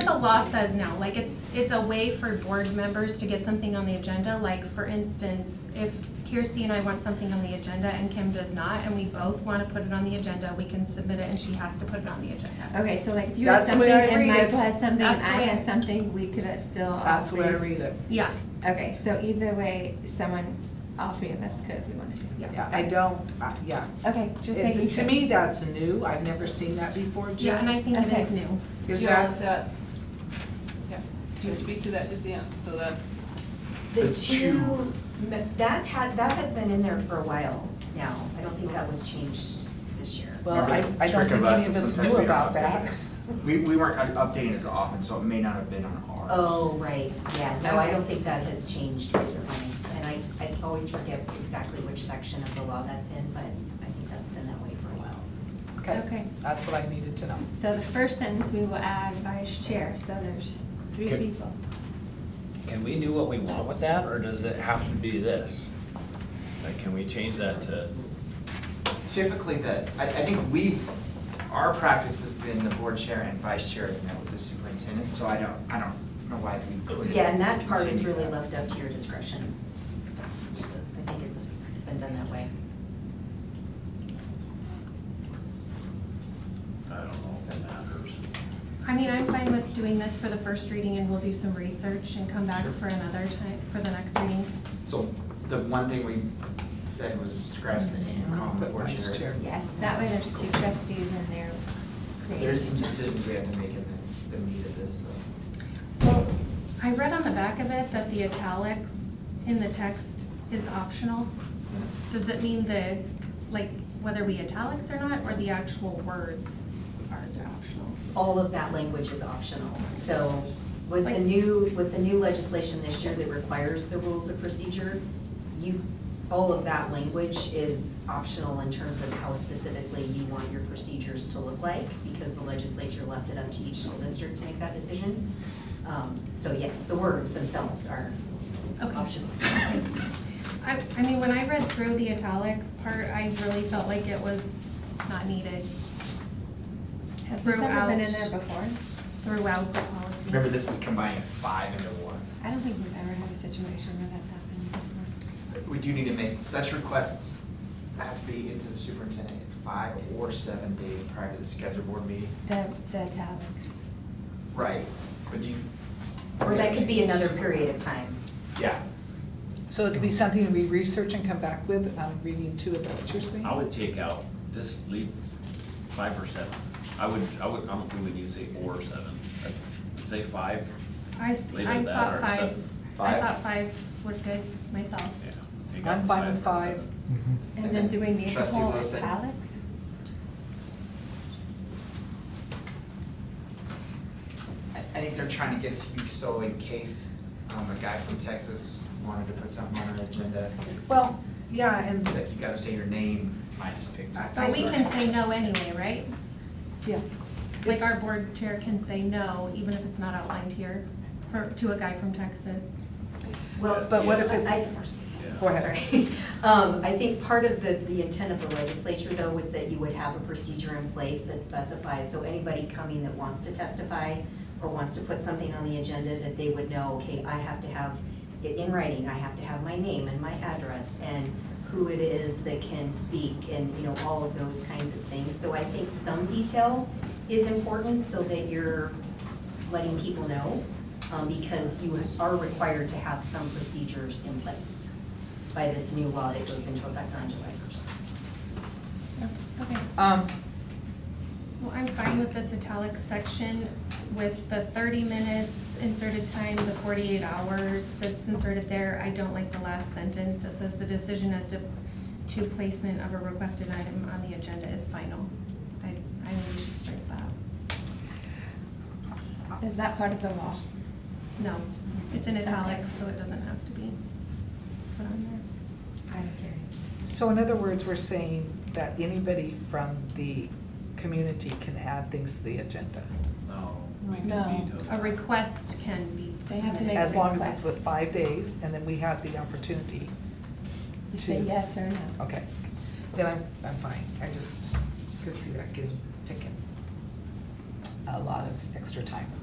law says now, like, it's, it's a way for board members to get something on the agenda, like, for instance, if Kirsty and I want something on the agenda and Kim does not, and we both wanna put it on the agenda, we can submit it and she has to put it on the agenda. Okay, so like if you had That's the something way I read and it. Michael had something, That's and the I way- had something, we could uh, still. all That's the way I three- read it. Yeah, Okay, so either way, someone, all three of us could if we wanted to. yeah. Yeah, I don't, I- yeah. Okay, just It- making To sure. me, that's new. I've never seen that before, Yeah, and Jen. I think it is new. Is Jill, that, is that, yeah, do you speak to that just yet? So that's, The It's two. two, me- that had, that has been in there for a while now. I don't think that was changed this year. well, I, I Trick don't of think any of us is us sometimes knew we don't about update that. We, we weren't up- updating as often, so it may not have been on ours. Oh, right, yeah, no, I don't think that has changed recently. And I, I always forget exactly which section of the law that's in, but I think that's been that way for a while. Okay. That's what I needed to know. So the first sentence we will add vice chair, so there's three Okay. people. Can we do what we want with that, or does it have to be this? Like, can we change that to, Typically, the, I, I think we, our practice has been the board chair and vice chair has met with the superintendent, so I don't, I don't know why we couldn't. Oh, Yeah, and that part is really continue that. left up to your discretion. I think it's been done that way. I don't know if it matters. I mean, I'm fine with doing this for the first reading and we'll do some research and come back Sure. for another time, for the next reading. So the one thing we said was scratch the Mm-hmm. and call the The board vice chair. chair. Yes, that way there's two trustees in there. There's some decisions we have to make in the, the meat of this, though. Well, I read on the back of it that the italics in the text is optional. Does it mean the, like, whether we italics or not, or the actual words are the optional? all of that language is optional. So with the Like- new, with the new legislation this year that requires the rules of procedure, you, all of that language is optional in terms of how specifically you want your procedures to look like, because the legislature left it up to each school district to make that decision. Um, So yes, the words themselves are Okay. optional. I, I mean, when I read through the italics part, I really felt like it was not needed Has this ever been in Throughout. there before? throughout the policy. Remember, this is combining five into one. I don't think we've ever had a situation where that's happened before. We do need to make, such requests have to be into the superintendent in five or seven days prior to the scheduled board meeting. The, the italics. Right. But do you? Or that could be another period of time. Yeah. So it could be something that we research and come back with, um, reading too, is that what you're saying? I would take out, just leave five or seven. I would, I would, I don't think we need to say or seven. I'd Say five, I, s- Later I that thought or five, seven. I Five? thought five was good myself. yeah. take out I'm the fine with or five. seven. And And then then do we need the trustee whole italics? Wilson. I, I think they're trying to get to you so in case, um, a guy from Texas wanted to put something on an agenda, Well, yeah, and, that you gotta say your name, I just picked Texas. But we can say no anyway, right? yeah. Like our It's- board chair can say no, even if it's not outlined here, for, to a guy from Texas. Well, But what if I- it's, Yeah. go ahead. Sorry. Um, I think part of the, the intent of the legislature though was that you would have a procedure in place that specifies, so anybody coming that wants to testify or wants to put something on the agenda, that they would know, okay, I have to have it in writing, I have to have my name and my address and who it is that can speak and, you know, all of those kinds of things. So I think some detail is important so that you're letting people know, um, because you are required to have some procedures in place by this new law that goes into effect on July first. Okay, Um, well, I'm fine with this italic section with the thirty minutes inserted time, the forty-eight hours that's inserted there. I don't like the last sentence that says the decision as to, to placement of a requested item on the agenda is final. I, I think we should strike that. Is that part of the law? No, it's in italics, so it doesn't have to be put on there. I don't care. so in other words, we're saying that anybody from the community can add things to the agenda, No, we can No. veto. A request can be They have to submitted. Make a as long as it's request. with five days, and then we have the opportunity. You say to- yes or no. Okay, then I'm, I'm fine, I just could see that getting, taking a lot of extra time.